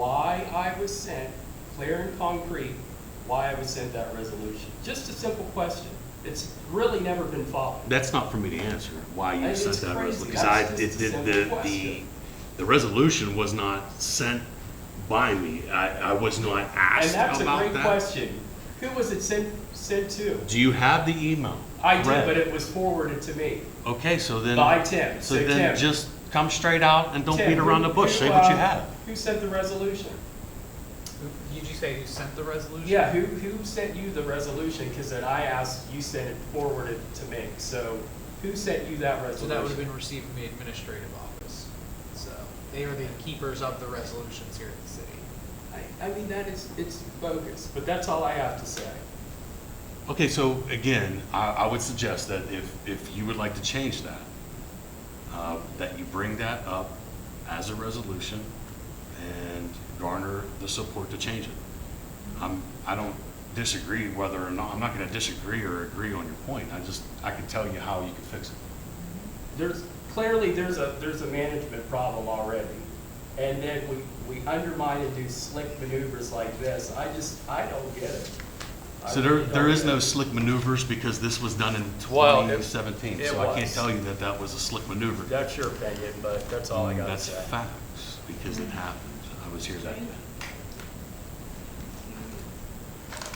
why I was sent, clear and concrete, why I was sent that resolution. Just a simple question. It's really never been followed. That's not for me to answer, why you It's sent that crazy. resolution. Because I, That's did just a did simple the, the, question. the resolution was not sent by me. I, I was not And asked that's a about great that. question. Who was it sent, sent to? Do you have the email? I did, Read. but it was forwarded to me Okay, so then. by Tim. So So then Tim- just come straight out and don't Tim, beat around the who- bush. Say who, what you uh, have. Who sent the resolution? Who- Did you say who sent the resolution? Yeah, who, who sent you the resolution? Because then I asked, you sent it forwarded to me. So who sent you that So that would have resolution? been received from the administrative office. So they are the keepers of the resolutions here at the city. I, I mean, that is, it's bogus, but that's all I have to say. Okay, so again, I, I would suggest that if, if you would like to change that, uh, that you bring that up as a resolution and garner the support to change it. I'm, I don't disagree whether or not, I'm not gonna disagree or agree on your point. I just, I can tell you how you can fix it. There's, clearly, there's a, there's a management problem already. And then we, we undermine and do slick maneuvers like this. I just, I don't get it. I So there, really there don't is get no it. slick maneuvers because this was done in Well, it- twenty seventeen. it So I can't was. tell you that that was a slick maneuver. That's your opinion, but that's all I got to Mm, That's say. facts, because it happened. I was here that day.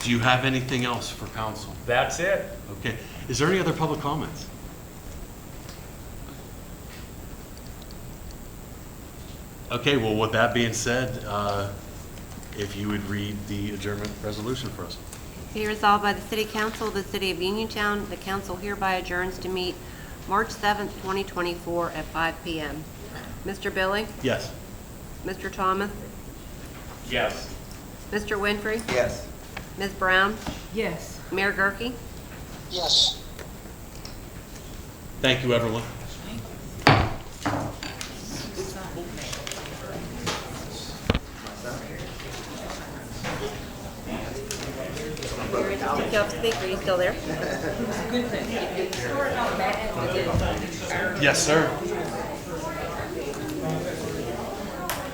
Do you have anything else for council? That's it. Okay. Is there any other public comments? Okay, well, with that being said, uh, if you would read the adjournment resolution for us. Be resolved by the City Council of the City of Uniontown, the council hereby adjourns to meet March 7th, 2024 at 5 PM. Mr. Billy? Yes? Mr. Thomas? Yes. Mr. Winfrey? Yes. Ms. Brown? Yes. Mayor Gurke? Yes. Thank you, everyone. Did you speak? Are you still there? Yes, sir.